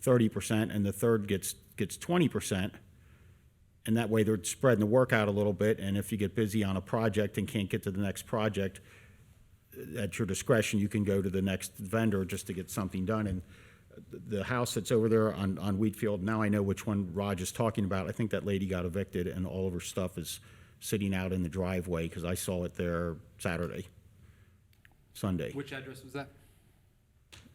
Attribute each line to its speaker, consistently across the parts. Speaker 1: thirty percent and the third gets gets twenty percent. And that way they're spreading the work out a little bit. And if you get busy on a project and can't get to the next project, at your discretion, you can go to the next vendor just to get something done. And the house that's over there on, on Wheatfield, now I know which one Raj is talking about. I think that lady got evicted and all of her stuff is sitting out in the driveway because I saw it there Saturday, Sunday.
Speaker 2: Which address was that?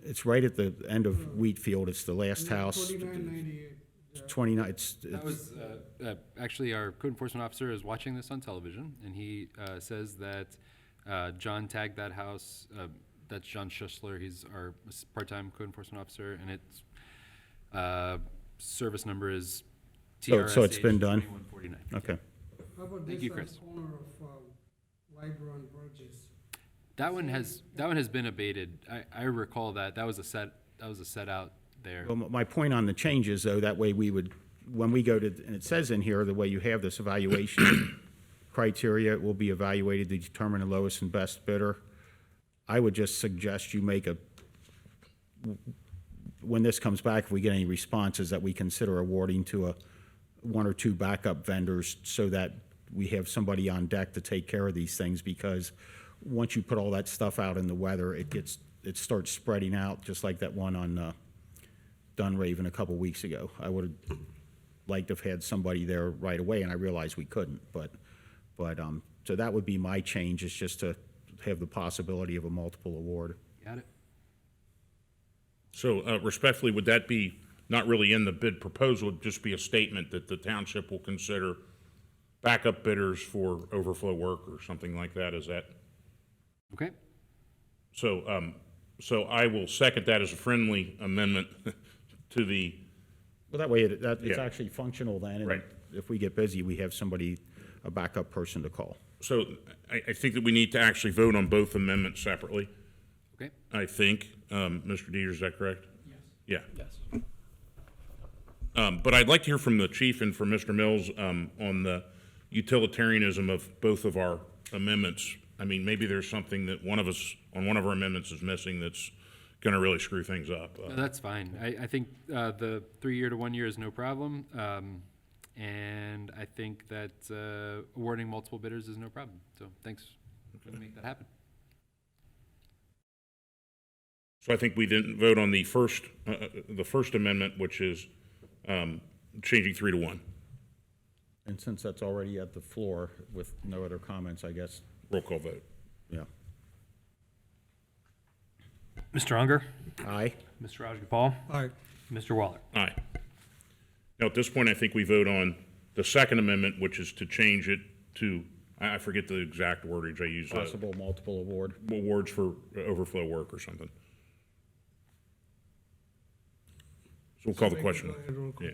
Speaker 1: It's right at the end of Wheatfield. It's the last house.
Speaker 3: Twenty-nine ninety-eight. uh,
Speaker 1: Twenty-nine, it's,
Speaker 2: That was, uh, uh, actually, our code enforcement officer is watching this on television, and he uh, says that uh, John tagged that house, uh, that's John Schussler, he's our s- part-time code enforcement officer, and its uh, service number is
Speaker 1: So-
Speaker 2: TRS.
Speaker 1: Oh, so it's been done? okay.
Speaker 3: How about
Speaker 2: Thank
Speaker 3: this
Speaker 2: you,
Speaker 3: on
Speaker 2: Chris.
Speaker 3: corner of, um, Libra and Burgess?
Speaker 2: That one has, that one has been abated. I, I recall that, that was a set, that was a set out there.
Speaker 1: Well, my point on the changes, though, that way we would, when we go to, and it says in here, the way you have this evaluation criteria, it will be evaluated to determine the lowest and best bidder. I would just suggest you make a, when this comes back, if we get any responses, that we consider awarding to a, one or two backup vendors so that we have somebody on deck to take care of these things, because once you put all that stuff out in the weather, it gets, it starts spreading out, just like that one on, uh, Dunraven a couple weeks ago. I would have liked to have had somebody there right away, and I realized we couldn't, but, but, um, so that would be my change, is just to have the possibility of a multiple award.
Speaker 2: Got it?
Speaker 4: So uh, respectfully, would that be not really in the bid proposal, it'd just be a statement that the township will consider backup bidders for overflow work or something like that? Is that,
Speaker 2: Okay,
Speaker 4: so, um, so I will second that as a friendly amendment to the,
Speaker 1: Well, that way, it- that, it's
Speaker 4: Yeah.
Speaker 1: actually functional then, and
Speaker 4: Right.
Speaker 1: if we get busy, we have somebody, a backup person to call.
Speaker 4: so I, I think that we need to actually vote on both amendments separately,
Speaker 2: okay.
Speaker 4: I think. Um, Mr. Dieter, is that correct? Yes. Yeah.
Speaker 2: Yes.
Speaker 4: Um, But I'd like to hear from the chief and from Mr. Mills um, on the utilitarianism of both of our amendments. I mean, maybe there's something that one of us, on one of our amendments is missing that's going to really screw things up. Uh,
Speaker 2: No, That's fine. I, I think uh, the three-year to one-year is no problem. um, And I think that uh, awarding multiple bidders is no problem. So thanks for making that happen.
Speaker 4: So I think we didn't vote on the first, uh, uh, the first amendment, which is um, changing three to one.
Speaker 1: And since that's already at the floor with no other comments, I guess,
Speaker 4: Roll call vote.
Speaker 1: yeah.
Speaker 5: Mr. Unger,
Speaker 1: Aye?
Speaker 5: Mr. Rajagopal,
Speaker 3: Aye.
Speaker 5: Mr. Waller.
Speaker 4: Aye. Now, at this point, I think we vote on the second amendment, which is to change it to, I I forget the exact wordage I used. uh,
Speaker 1: Possible multiple award.
Speaker 4: awards for overflow work or something. So we'll call the question. Yeah.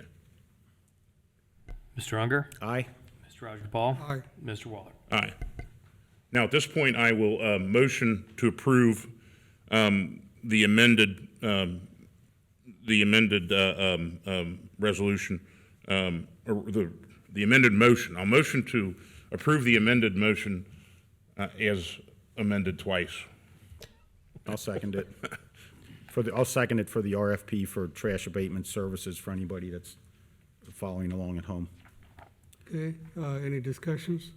Speaker 5: Mr. Unger,
Speaker 1: Aye?
Speaker 5: Mr. Rajagopal.
Speaker 3: Aye.
Speaker 5: Mr. Waller.
Speaker 4: Aye. Now, at this point, I will uh, motion to approve um, the amended, um, the amended uh, um, um, resolution, um, or the the amended motion. I'll motion to approve the amended motion uh, as amended twice.
Speaker 1: I'll second it. For the, I'll second it for the RFP for trash abatement services for anybody that's following along at home.
Speaker 3: Okay, uh, any discussions?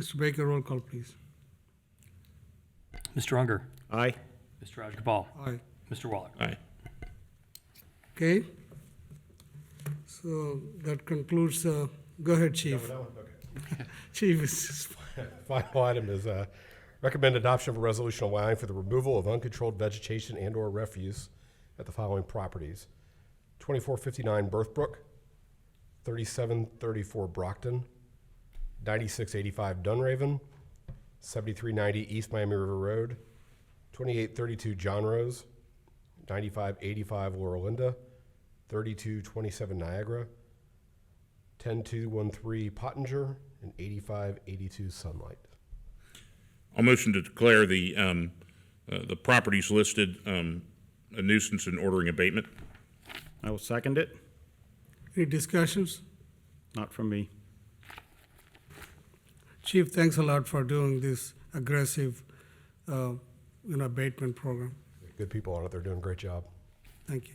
Speaker 3: Mr. Baker, roll call, please.
Speaker 5: Mr. Unger,
Speaker 1: Aye?
Speaker 5: Mr. Rajagopal,
Speaker 3: Aye.
Speaker 5: Mr. Waller.
Speaker 4: Aye.
Speaker 3: Okay? So that concludes, uh, go ahead, Chief. Chief is,
Speaker 6: Final item is uh, recommend adoption of a resolution allowing for the removal of uncontrolled vegetation and/or refuse at the following properties: 2459 Berthbrook, 3734 Brockton, 9685 Dunraven, 7390 East Miami River Road, 2832 John Rose, 9585 Laurelinda, 3227 Niagara, 10213 Pottinger, and 8582 Sunlight.
Speaker 4: I'll motion to declare the, um, uh, the properties listed, um, a nuisance and ordering abatement.
Speaker 1: I will second it.
Speaker 3: any discussions?
Speaker 1: Not from me.
Speaker 3: Chief, thanks a lot for doing this aggressive, uh, you know, abatement program.
Speaker 6: Good people on it, they're doing a great job.
Speaker 3: Thank you.